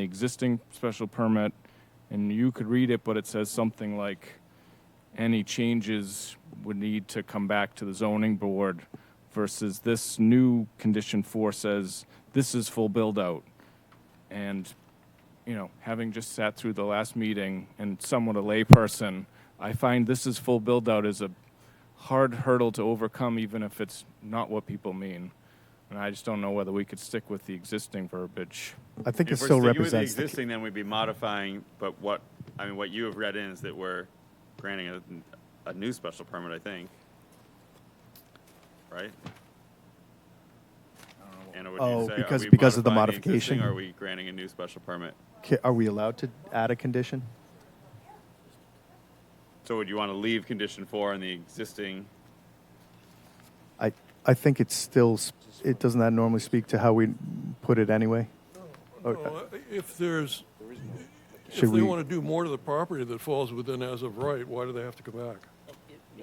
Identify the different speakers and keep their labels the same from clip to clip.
Speaker 1: the existing special permit, and you could read it, but it says something like, any changes would need to come back to the zoning board versus this new condition four says, this is full build-out. And, you know, having just sat through the last meeting and somewhat a layperson, I find this is full build-out is a hard hurdle to overcome, even if it's not what people mean. And I just don't know whether we could stick with the existing verbiage.
Speaker 2: I think it
Speaker 3: If we're
Speaker 2: still
Speaker 3: sticking with the
Speaker 2: represents. the-
Speaker 3: existing, then we'd be modifying, but what, I mean, what you have read in is that we're granting a, a new special permit, I think. Right? Anna, would you
Speaker 2: Oh,
Speaker 3: say, are
Speaker 2: because-
Speaker 3: we
Speaker 2: because of the
Speaker 3: modifying the
Speaker 2: modification?
Speaker 3: existing, Or are we granting a new special permit?
Speaker 2: Ca- Are we allowed to add a condition?
Speaker 3: So would you want to leave condition four in the existing?
Speaker 2: I, I think it's still, s- it, doesn't that normally speak to how we put it anyway? Or-
Speaker 4: Well, If there's, if
Speaker 2: Should
Speaker 4: they
Speaker 2: we-
Speaker 4: want to do more to the property that falls within as of right, why do they have to come back?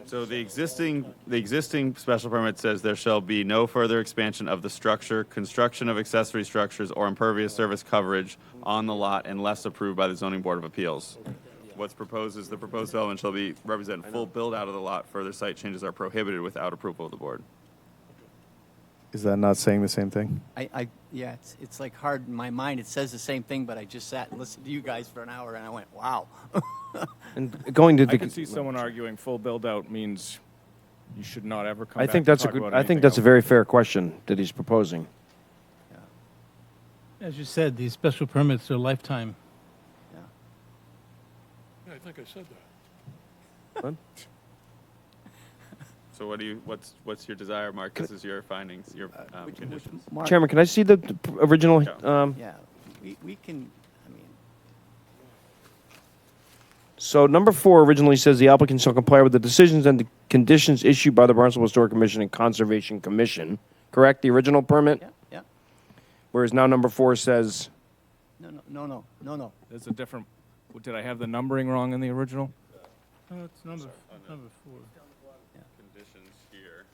Speaker 3: So the existing, the existing special permit says there shall be no further expansion of the structure, construction of accessory structures, or impervious service coverage on the lot unless approved by the zoning board of appeals. What's proposed is the proposed development shall be, represent full build-out of the lot. Further site changes are prohibited without approval of the board.
Speaker 2: Is that not saying the same thing?
Speaker 5: I, I yeah, it's, it's like hard in my mind. It says the same thing, but I just sat and listened to you guys for an hour, and I went, "Wow."
Speaker 6: And going to the.
Speaker 1: I can see someone arguing full build-out means you should not ever come
Speaker 6: I
Speaker 1: back
Speaker 6: think
Speaker 1: to
Speaker 6: that's a
Speaker 1: talk
Speaker 6: good.
Speaker 1: about
Speaker 6: I think
Speaker 1: anything
Speaker 6: that's a
Speaker 1: else.
Speaker 6: very fair question that he's proposing.
Speaker 7: As you said, these special permits are lifetime.
Speaker 5: yeah.
Speaker 4: Yeah, I think I said that.
Speaker 3: So what do you, what's, what's your desire, Mark? This is your findings, your um,
Speaker 5: Which- which-
Speaker 3: conditions.
Speaker 5: Mark,
Speaker 6: Chairman, can I see the p- original?
Speaker 3: Yeah.
Speaker 6: Um,
Speaker 5: Yeah, we, we can. I mean,
Speaker 6: So number four originally says the applicant shall comply with the decisions and the conditions issued by the Barnstable Historic Commission and Conservation Commission. Correct. The original permit.
Speaker 5: yeah, yeah.
Speaker 6: Whereas now number four says.
Speaker 5: No, no, no, no, no, no.
Speaker 1: There's a different, did I have the numbering wrong in the original?
Speaker 7: No, it's number, number four.
Speaker 3: Conditions here.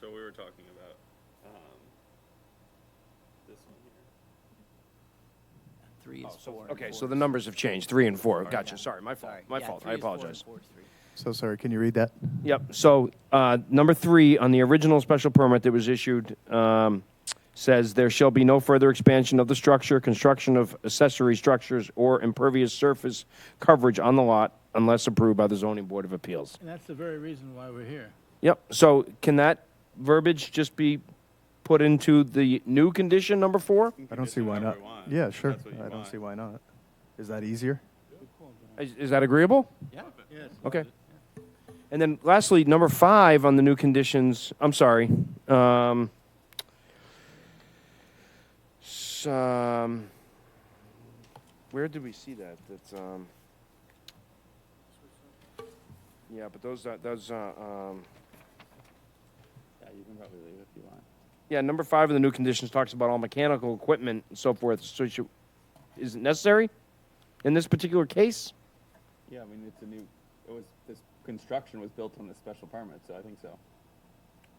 Speaker 3: So we were talking about, um, this one here.
Speaker 5: Three is four. and
Speaker 6: Okay,
Speaker 5: four
Speaker 6: Oh, so
Speaker 5: is-
Speaker 6: the numbers have changed. Three and four. Gotcha.
Speaker 5: Yeah.
Speaker 6: Sorry, my fault.
Speaker 5: Sorry.
Speaker 6: My
Speaker 5: Yeah,
Speaker 6: fault.
Speaker 5: three
Speaker 6: I
Speaker 5: is four and
Speaker 6: apologize.
Speaker 5: four is three.
Speaker 2: So sorry, can you read that?
Speaker 6: Yep. So uh, number three on the original special permit that was issued um, says there shall be no further expansion of the structure, construction of accessory structures, or impervious surface coverage on the lot unless approved by the zoning board of appeals.
Speaker 7: And that's the very reason why we're here.
Speaker 6: Yep. So can that verbiage just be put into the new condition number four?
Speaker 2: I don't see why not. Yeah, sure, I don't see why not. Is that easier?
Speaker 6: Is, is that agreeable?
Speaker 5: Yeah.
Speaker 7: Yes.
Speaker 6: Okay. And then lastly, number five on the new conditions, I'm sorry. Um, s- um, where did we see that? That's, um, yeah, but those, uh, those, uh, um,
Speaker 3: Yeah, you can probably leave if you want.
Speaker 6: yeah, number five of the new conditions talks about all mechanical equipment and so forth. So should, is it necessary in this particular case?
Speaker 3: Yeah, I mean, it's a new, it was, this construction was built on this special permit, so I think so.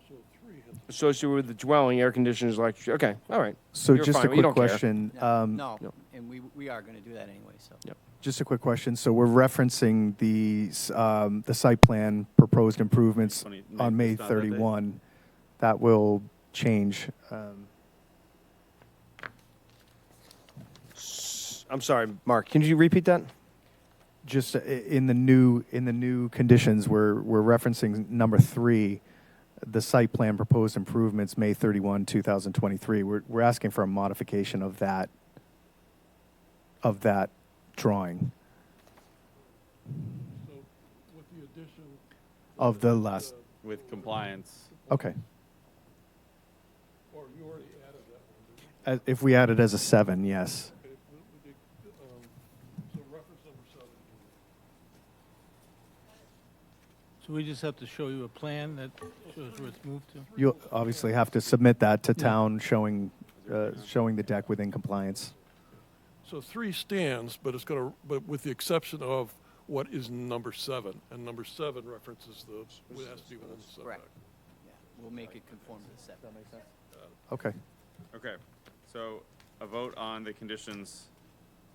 Speaker 4: So three, has-
Speaker 6: Associated with the dwelling, air conditioners, electric, okay, all right.
Speaker 2: So
Speaker 6: You're
Speaker 2: just a
Speaker 6: fine, you
Speaker 2: quick
Speaker 6: don't care.
Speaker 2: question.
Speaker 5: No,
Speaker 2: um,
Speaker 5: no,
Speaker 6: no.
Speaker 5: and we we are going to do that anyway. So
Speaker 6: Yep.
Speaker 2: Just a quick question. So we're referencing the, s- um, the site plan proposed improvements
Speaker 3: Twenty- May-
Speaker 2: on May
Speaker 3: it's not that day.
Speaker 2: 31. That will change. um,
Speaker 6: S- I'm sorry, Mark, can you repeat that?
Speaker 2: Just uh, i- in the new, in the new conditions, we're, we're referencing number three, the site plan proposed improvements, May 31, 2023. We're, we're asking for a modification of that, of that drawing,
Speaker 4: so with the addition,
Speaker 2: of the last,
Speaker 3: With compliance.
Speaker 2: okay.
Speaker 4: or you already added that one. didn't you?
Speaker 2: As- Uh, If we add it as a seven, yes.
Speaker 4: Okay, we- we did, um, So reference number seven.
Speaker 7: So we just have to show you a plan that shows where it's moved to.
Speaker 2: You'll obviously have to submit that to town showing, uh, showing the deck within compliance.
Speaker 4: So three stands, but it's going to, but with the exception of what is number seven. And number seven references the, it has to be within the setback.
Speaker 5: Correct. yeah, we'll make it conform to the setback.
Speaker 2: Okay.
Speaker 3: Okay, so a vote on the conditions